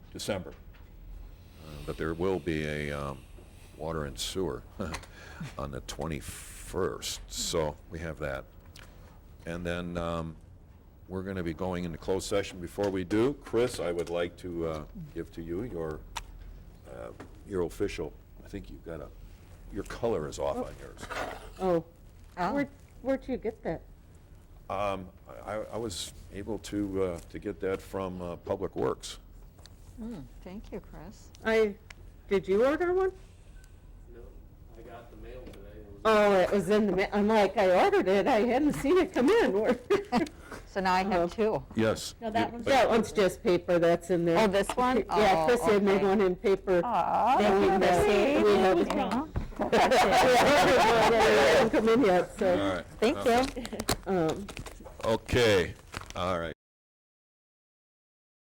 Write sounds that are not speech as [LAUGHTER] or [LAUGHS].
December. Uh, But there will be a um, water and sewer [LAUGHS] on the 21st, so we have that. And then um, we're going to be going into closed session. Before we do, Chris, I would like to uh, give to you your, uh, your official, I think you've got a, your color is off on yours. Oh, where'd, where'd you get that? Um, I I was able to, uh, to get that from uh, Public Works. Hmm, Thank you, Chris. I, did you order one? No, I got the mail today. It was- Oh, it was in the, ma- I'm like, I ordered it, I hadn't seen it come in. [LAUGHS] Where- So now I Uh-huh. have two. Yes. No, that one's- That one's just paper that's in there. Oh, this one? Yeah, Oh, Chris had made okay. one in paper. [LAUGHS] Aw, Then we that's have- sweet. we have- Yeah. Yeah, it hasn't come in yet, All so, right. Thank you. um, Okay, all right.